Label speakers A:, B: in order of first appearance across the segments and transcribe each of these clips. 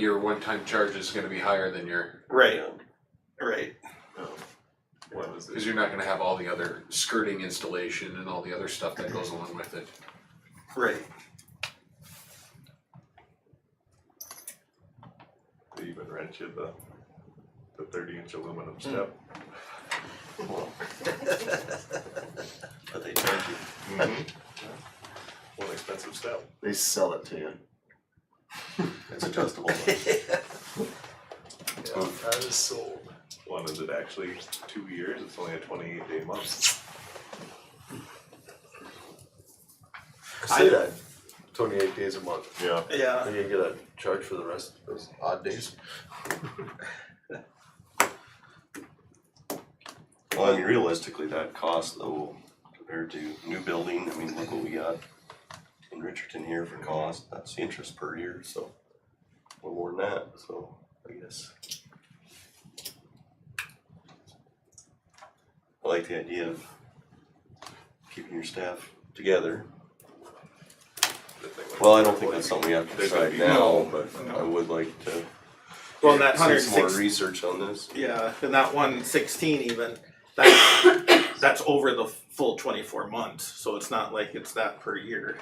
A: your one-time charge is gonna be higher than your,
B: Right, right.
C: What is
A: cause
C: it?
A: you're not gonna have all the other skirting installation and all the other stuff that goes along with it.
B: Right.
C: They even rent you the, the thirty inch aluminum step.
B: But they charge you.
C: One expensive step.
D: They sell it to you. It's adjustable.
C: I was sold. One is it actually two years? It's only a twenty eight day month.
D: Say that. Twenty-eight days a month.
C: Yeah.
B: Yeah.
D: Are you gonna get a charge for the rest of those odd days?
E: Well, I mean, realistically, that cost though, compared to new building, I mean, look what we got in Richardson here for cost, that's the interest per year, so. A little more than that, so I guess. I like the idea of keeping your staff together. Well, I don't think that's something we have to
C: There's gotta
E: decide
C: be-
E: now, but I would like to
B: Well, that
E: see
B: hundred
E: some more
B: six.
E: research on this.
B: Yeah, and that one sixteen even. That that's over the full twenty four months, so it's not like it's that per year.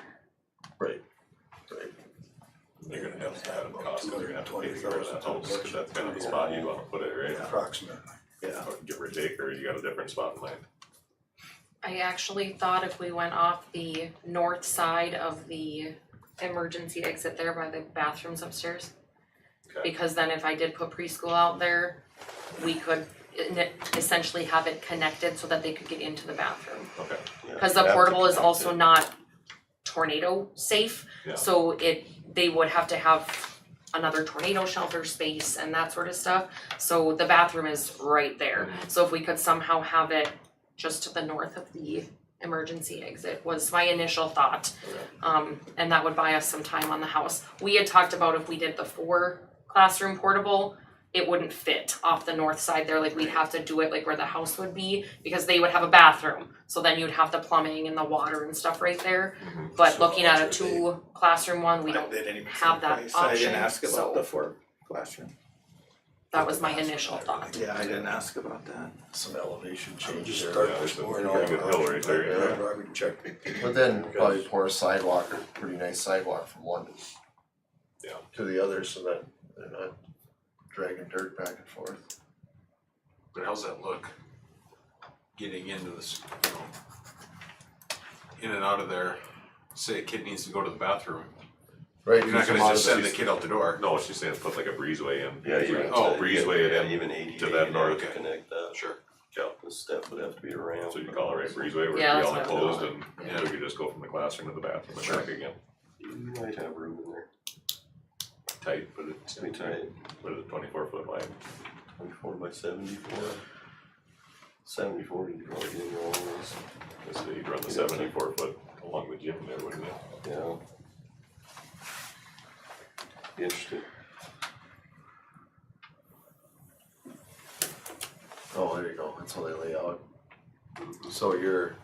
C: You're gonna have to have a cost, 'cause you're gonna have to pay for that house, cause that's kind of the spot you wanna put it, right?
F: approximately.
B: Yeah.
C: Give or take, or you got a different spot in mind.
G: I actually thought if we went off the north side of the emergency exit there by the bathrooms upstairs.
C: Okay.
G: Because then if I did put preschool out there, we could en- essentially have it connected so that they could get into the bathroom.
C: Okay.
E: Yeah,
G: Cause the
E: you have to
G: portable is
E: protect
G: also
E: it.
G: not tornado safe,
C: Yeah.
G: so it, they would have to have another tornado shelter space and that sort of stuff. So the bathroom is right there,
E: Mm-hmm.
G: so if we could somehow have it just to the north of the emergency exit was my initial thought.
C: Okay.
G: Um, and that would buy us some time on the house. We had talked about if we did the four classroom portable, it wouldn't fit off the north side there, like we'd have to do it like where the house would be, because they would have a bathroom. So then you'd have the plumbing and the water and stuff right there,
C: Mhm.
G: but
F: Mm-hmm. So
G: looking at a
F: those would be-
G: two classroom one, we don't,
B: They didn't even
G: have that
B: say. I
G: option,
B: didn't ask
G: so-
B: about the four classroom.
G: that was my initial thought.
B: Yeah, I didn't ask about that.
F: Some elevation changes
D: changes
F: there.
D: there.
C: Yeah, it's a pretty good hill right there, yeah.
D: But then probably pour a sidewalk or pretty nice sidewalk from one.
C: Yeah.
D: To the other so that they're not dragging dirt back and forth.
A: But how's that look? Getting into this, you know, in and out of there, say a kid needs to go to the bathroom,
D: Right,
A: you're not
D: because a
A: gonna
D: lot
A: just
D: of
A: send the
D: these-
A: kid out the door.
C: No, she's saying put like a breezeway in.
E: Yeah, even.
C: Oh,
E: to-
C: breezeway it
E: yeah,
C: in.
E: Even ADA.
C: to that
E: you'd have
C: north.
E: to Connect that.
A: Sure.
E: Yeah, the step would have to be around.
C: So you call it right breezeway where it'd be
G: Yeah, that's
C: all
G: what I
C: enclosed
G: thought.
C: and
A: Yeah.
C: so you could just go from the classroom to the bathroom and back again.
E: You might have room in there,
C: Tight, but it's,
E: it's gonna be tight,
C: but it's twenty-four foot line.
E: twenty-four by seventy-four. Seventy-four, you could probably get in all those,
C: This, you'd run the
E: Yeah.
C: seventy-four foot along the gym there, wouldn't it?
E: you know. Be Interesting,
D: Oh, there you go, that's how they lay out. So your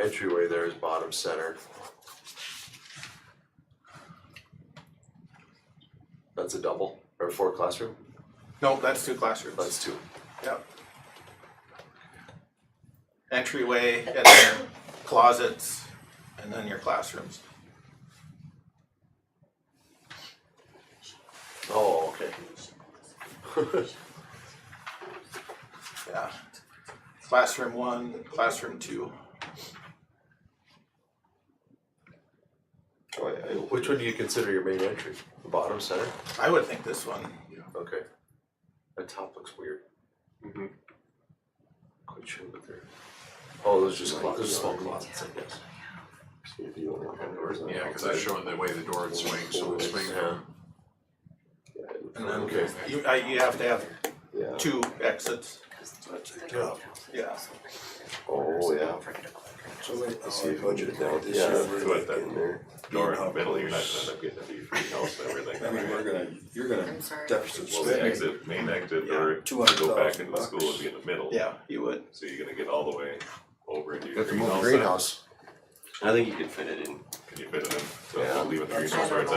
D: entryway there is bottom center. That's a double, or four classroom,
B: No, that's two classrooms.
D: that's two.
B: Yep. Entryway and then closets and then your classrooms.
D: Oh, okay.
B: Yeah. Classroom one, classroom two.
E: oh, I, I,
D: Which one do you consider your main entry? The bottom center?
B: I would think this one.
D: Okay. That top looks weird.
C: Mhm.
D: Quite sure what they're. Oh, those are just closets, those are small closets, I guess.
E: see if you don't want to doors on the
A: Yeah, cause that's
E: outside.
A: showing the way the door would swing, so it would swing from
E: Yeah, it would-
B: And then
D: Okay.
B: you, I, you have to have
E: Yeah,
B: two exits.
F: Yeah.
B: Yeah.
E: oh, yeah,
F: So wait, oh,
E: Let's see if we can get
F: now
E: down,
F: this
E: yeah,
F: year,
C: do it
E: we're
C: then.
E: in there.
C: Door in the middle, you're not gonna end up getting a view-free house and
F: I mean, we're
C: everything.
F: gonna, you're gonna
G: I'm sorry.
F: deficit
C: Well, the
F: spending
C: exit, main exit, or
F: two
C: to
F: hundred
C: go back
F: thousand
C: into
F: bucks.
C: school would be in the middle.
B: Yeah, you would.
C: So you're gonna get all the way over into your
D: Got the
C: greenhouse.
D: greenhouse.
E: I think you could fit it in.
C: Can you fit it in? So
E: Yeah.
C: we'll leave it in the
F: That's
C: resource
G: fine.
C: right